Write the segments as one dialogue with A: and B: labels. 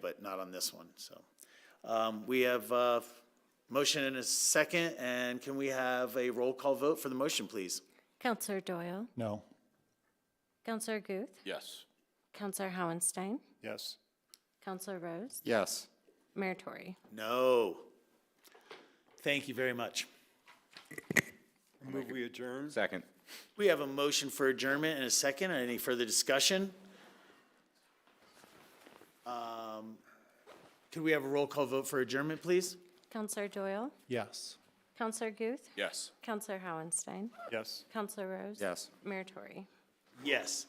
A: but not on this one, so. Um, we have, uh, motion and a second, and can we have a roll call vote for the motion, please?
B: Counselor Doyle,
C: No.
B: Counselor Guth,
D: Yes.
B: Counselor Howenstein,
C: Yes.
B: Counselor Rose,
D: Yes.
B: Mayor Tory.
A: No. Thank you very much.
E: Move we adjourn?
D: Second.
A: We have a motion for adjournment and a second. Any further discussion? Um, Could we have a roll call vote for adjournment, please?
B: Counselor Doyle,
C: Yes.
B: Counselor Guth,
D: Yes.
B: Counselor Howenstein,
C: Yes.
B: Counselor Rose.
D: Yes.
B: Mayor Tory.
A: Yes.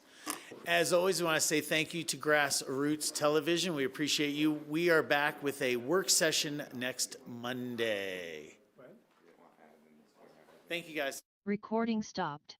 A: As always, we want to say thank you to Grassroots Television. We appreciate you. We are back with a work session next Monday. Thank you, guys.
F: Recording stopped.